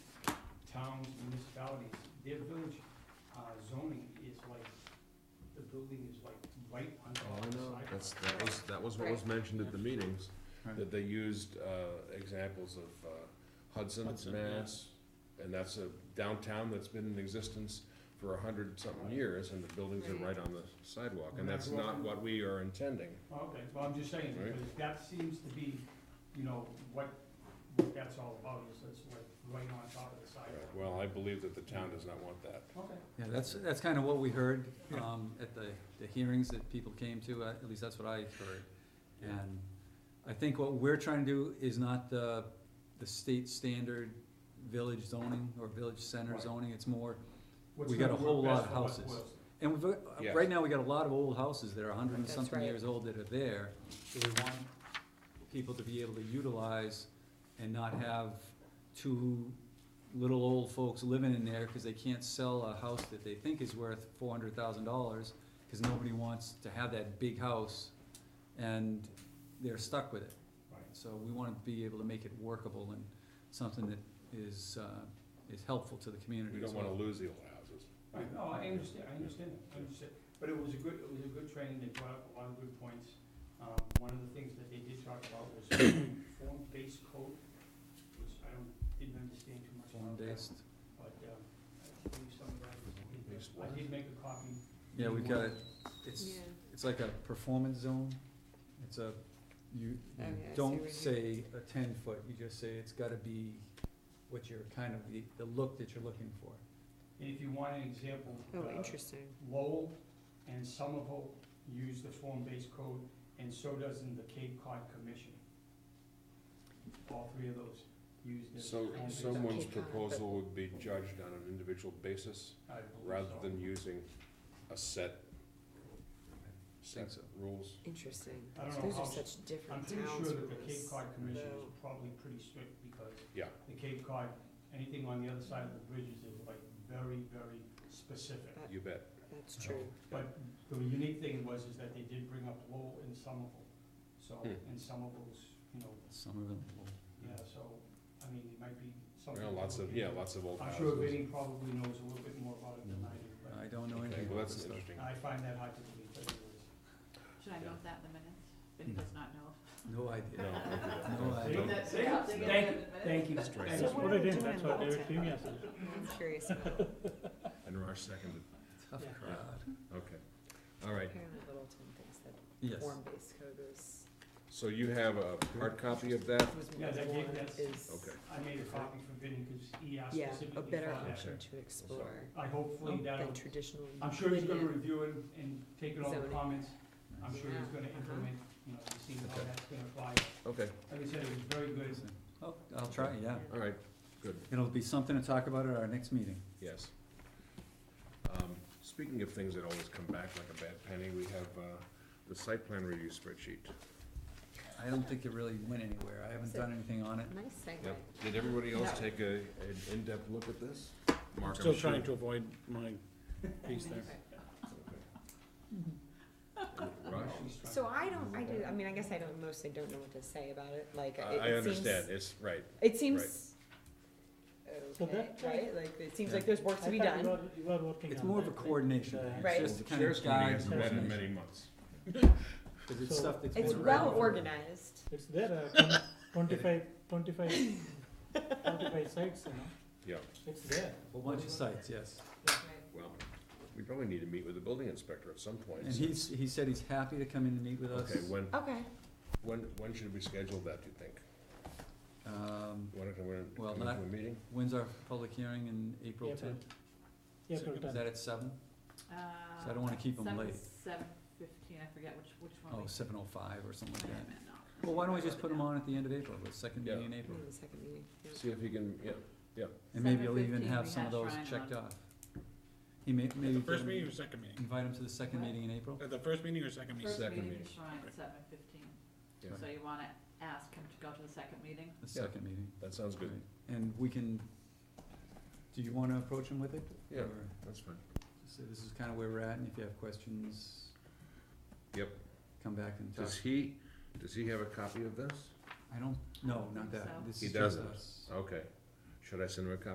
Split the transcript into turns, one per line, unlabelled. municipalities, their village uh, zoning is like, the building is like right on
Oh, I
the
know,
sidewalk.
that's, that was, that was what was mentioned at the meetings, that they used, uh, examples of uh, Hudson,
Hudson,
Mass. And that's a downtown that's been in existence for a hundred something years, and the buildings are right on the sidewalk, and that's not what we are intending.
Okay, well, I'm just saying,
Right.
because that seems to be, you know, what, what that's all about, is it's like right on top of the
Right,
sidewalk.
Well, I believe that the town does not want that.
Okay,
Yeah, that's, that's kind of what we heard, um, at the, the hearings that people came to, uh, at least that's what I heard. And I think what we're trying to do is not the, the state standard village zoning or village center
Right.
zoning, it's more,
What's
We got
gonna
a whole
work best
lot of
for West
houses.
Boylston?
and we've, uh,
Yes.
right now, we got a lot of old houses that are a hundred and
That's
something
right.
years old that are there. So we want people to be able to utilize and not have two little old folks living in there, cause they can't sell a house that they think is worth four hundred thousand dollars, cause nobody wants to have that big house, and they're stuck with it.
Right.
So we wanna be able to make it workable and something that is, uh, is helpful to the community
We
as
don't
well.
wanna lose the old houses.
Right, no, I understand, I understand, that, I understand, but it was a good, it was a good training, they brought up a lot of good points. Um, one of the things that they did talk about was form-based code, which I don't, didn't understand too much about that,
Form-based.
but, um, I believe some of that was.
Form-based
I
what?
did make a copy.
Yeah, we've got it, it's,
Yeah,
it's like a performance zone, it's a,
Oh,
you,
yeah, I see
don't
what
say a ten foot, you just say it's gotta be what you're kind of, the, the look that you're looking for.
And if you want an example,
oh,
uh,
interesting.
Lowell and Somerville use the form-based code, and so does in the Cape Cod Commission. All three of those use this.
So,
form-based-
someone's proposal would be judged on an individual basis,
I believe
rather
so.
than using a set, set
so.
rules.
Interesting.
I don't know
Those
how
are
s-
such
I'm
different
pretty
towns.
sure that the
from
Cape
us,
Cod Commission is
though.
probably pretty strict, because
Yeah.
the Cape Cod, anything on the other side of the bridges is like very, very specific.
That-
You bet.
That's true.
But the unique thing was, is that they did bring up Lowell and Somerville, so,
Hmm.
and Somerville's, you know,
Some of them
Yeah, so, I mean, it might be something.
There are lots of, yeah, lots of old
I'm
houses.
sure Vinnie probably knows a little bit more about it than I do,
I don't know
Okay,
anything
well,
about
that's
this stuff.
interesting.
but I find that hard to believe, but anyways.
Should I
Yeah.
note that in the minutes? Vinny does not know.
No
No,
idea.
okay.
No idea.
Don't-
That-
See?
yeah, they
Thank
get
Hmm. you,
it in the
Thank you.
right.
Thank
So
you.
what are we doing about that?
yesterday.
I'm curious about it.
And Raj seconded.
Tough
Yeah.
crowd.
Okay. All right.
Apparently Littleton thinks that
Yes,
form-based code is,
So you have a hard copy of that?
was
Yeah,
more
that gave-
one
that's-
is,
Okay.
I made a copy for Vinnie, cause he asked
yeah,
specifically
a
for
better
that.
option Oh, to explore
I hopefully that'll,
than traditional.
I'm sure he's gonna
linear.
review it and take in all the
Zoning.
comments, I'm sure he's
Yeah,
gonna
uh-huh.
implement, you know, to see how
Okay.
that's gonna apply.
Okay,
Like I said, it was very good,
oh, I'll try, yeah,
all right, good,
it'll be something to talk about at our next meeting.
yes. Um, Speaking of things that always come back like a bad penny, we have uh, the site plan review spreadsheet.
I don't think it really went anywhere, I haven't done anything on it.
Nice segue.
Yep. Did everybody else
No.
take a, an in-depth look at this? Mark,
I'm still
sure-
trying to avoid my piece there.
Okay. Raj?
So I don't, I do, I mean, I guess I don't, mostly don't know what to say about it, like,
I
it
I
it seems.
understand, it's, right,
It seems,
Well,
okay,
that-
right, like, it seems
Yeah.
like there's work to be done.
You are working
It's more of a coordination, thing.
Right.
it's just to
the
kind
chair's
of
committee
guide.
hasn't met in
information.
many months.
Cause it's
So-
stuff that's.
It's
been
well
around.
organized.
It's there, uh, twenty-five, twenty-five, twenty-five sites, you know,
Yeah,
it's there.
A bunch of sites, yes.
well, we probably need to meet with the building inspector at some point.
And he's, he said he's happy to come in and meet with us.
Okay, when,
Okay,
when, when should we schedule that, do you think?
Um,
Want to, want to
Well,
come
not-
into a meeting?
when's our public hearing in April
April.
tenth?
April
Is
tenth.
that at seven?
Uh,
So I don't wanna keep 'em
seven-
late.
Seven fifteen, I forget which, which one.
Oh,
we-
seven oh five or something
I
like
am
that.
in now.
Well, why don't we just put them on at the end of April, the second
Yeah.
meeting in April?
in the second meeting, yeah.
See if he can, yeah,
And maybe you'll even
7:15,
have
we
some of
had
those
Shrine
checked
on.
off. He may, maybe. get him-
second meeting?
Invite him to the second
What?
meeting in April?
At the first meeting or second
First
Second
meeting
meeting.
is Shrine at seven fifteen,
Yeah.
so you wanna ask him to go to the second meeting?
The second meeting.
that sounds good,
Right. And we can, do you wanna approach him with it?
Yeah.
Or
that's fine.
just say this is kinda where we're at and if you have questions.
Yep.
Come back and talk.
Does he, does he have a copy of this?
I don't, no, not
think so.
that. This
He
is just
doesn't.
us.
Okay, should I send him a copy?